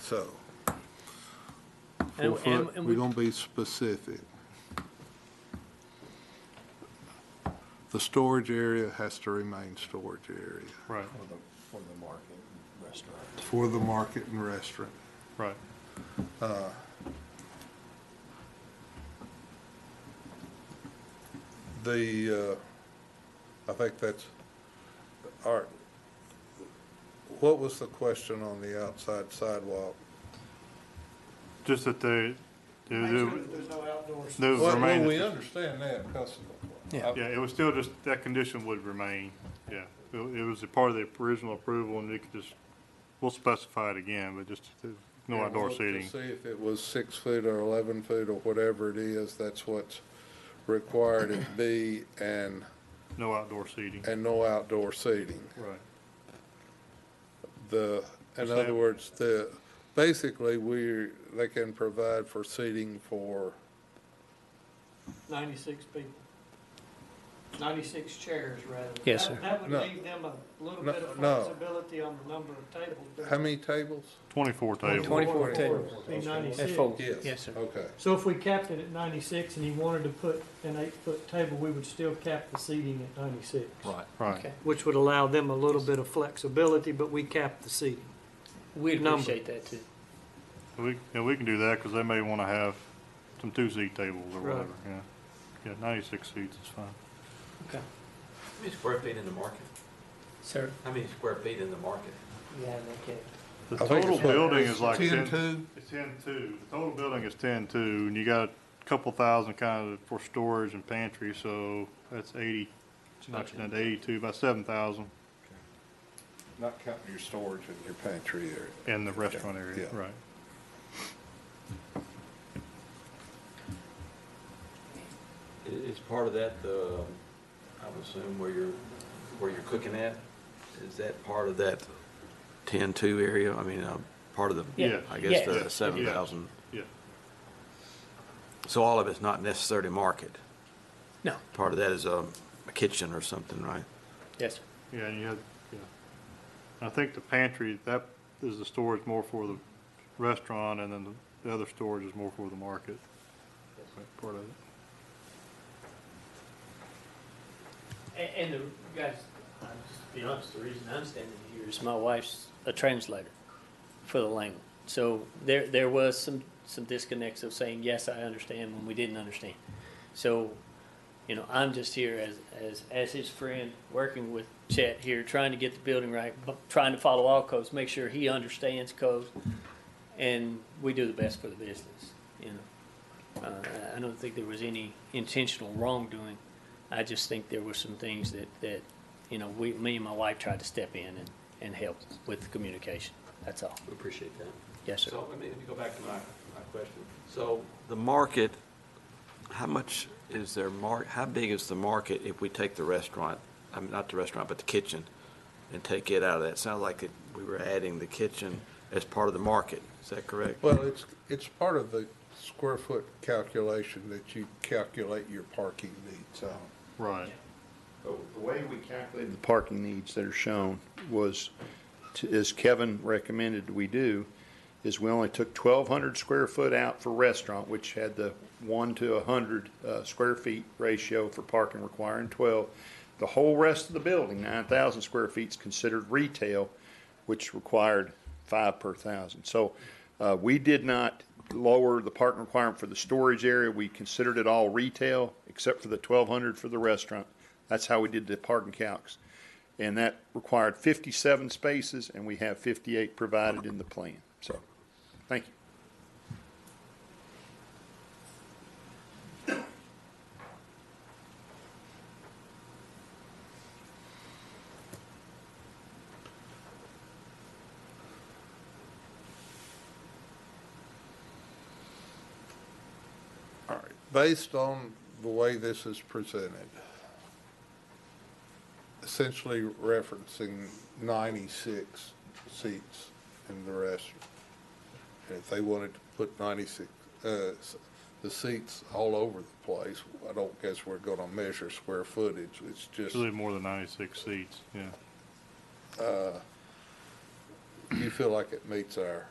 So, And- four and- foot, and we're we- gonna be specific. The storage area has to remain storage area Right, For the, for the market and restaurant. for the market and restaurant. right. The, uh, I think that's, all right. What was the question on the outside sidewalk? Just that they, they- Make they- sure that there's no outdoors. they would Well, well, remain, we understand that, customer. yeah, it was still just, that condition would remain, yeah. It it was a part of the original approval, and you could just, we'll specify it again, but just uh, no outdoor seating. See if it was six foot or eleven foot or whatever it is, that's what's required it be, and, No outdoor seating, and no outdoor seating. right. The, in Is other that- words, the, basically, we, they can provide for seating for, Ninety-six people. Ninety-six chairs, rather. Yes, That- sir. That would No. leave them a little No, bit of no. flexibility on the number of tables. but how many tables? Twenty-four table, 24 tables. it'd Be That's ninety-six. four. Yes, sir. Okay. So if we capped it at ninety-six and he wanted to put an eight-foot table, we would still cap the seating at ninety-six. Right. right. Okay. Which would allow them a little bit of flexibility, but we cap the seating. We Number. appreciate that too. We, yeah, we can do that, because they may want to have some two-seat tables or Right. whatever, yeah. Yeah, ninety-six seats is fine. Okay. How many square feet in the market? Sir, How many square feet in the market? you have no kidding. The I think total it's like building is like ten, Ten-two? it's ten-two, the total building is ten-two, and you got a couple thousand kind of for storage and pantry, so that's eighty, not down to eighty-two, about seven thousand Not counting your storage and your pantry area. in the restaurant area, Yeah. right. I- Is part of that the, I would assume where you're, where you're cooking at? Is that part of that ten-two area? I mean, uh, part of the, Yeah. I Yeah. guess Yeah. the seven thousand. Yeah, So all of it's not necessarily market. No. Part of that is um, a kitchen or something, right? Yes, sir. yeah, and you had, yeah. I think the pantry, that is the storage more for the restaurant, and then the- the other storage is more for the market. Right, Part of it. And, and the guys, i just be honest, the reason I'm standing here is my wife's a translator for the language. So there, there was some, some disconnects of saying, yes, I understand when we didn't understand. So, you know, I'm just here as, as, as his friend, working with Chet here, trying to get the building right, bu- trying to follow all codes, make sure he understands codes. And we do the best for the business, you know. Uh, I- I don't think there was any intentional wrongdoing. I just think there were some things that, that, you know, we, me and my wife tried to step in and, and help with the communication. That's all. We appreciate that. Yes, sir. So let me, let me go back to my, my question. So the market, how much is their mar, how big is the market if we take the restaurant, I mean, not the restaurant, but the kitchen, and take it out of that? Sounds like it- we were adding the kitchen as part of the market. Is that correct? Well, it's, it's part of the square foot calculation that you calculate your parking needs on. Right, The way we calculated. The parking needs that are shown was, to- as Kevin recommended we do, is we only took twelve hundred square foot out for restaurant, which had the one to a hundred, uh, square feet ratio for parking requiring twelve. The whole rest of the building, nine thousand square feet, is considered retail, which required five per thousand. So, uh, we did not lower the parking requirement for the storage area. We considered it all retail, except for the twelve hundred for the restaurant. That's how we did the parking calcs. And that required fifty-seven spaces, and we have fifty-eight provided in the plan. So, thank you. All right. Based on the way this is presented, essentially referencing ninety-six seats in the restaurant. And if they wanted to put ninety-six, uh, s- the seats all over the place, I don't guess we're gonna measure square footage, it's just. it's really more than ninety-six seats, yeah. you feel like it meets our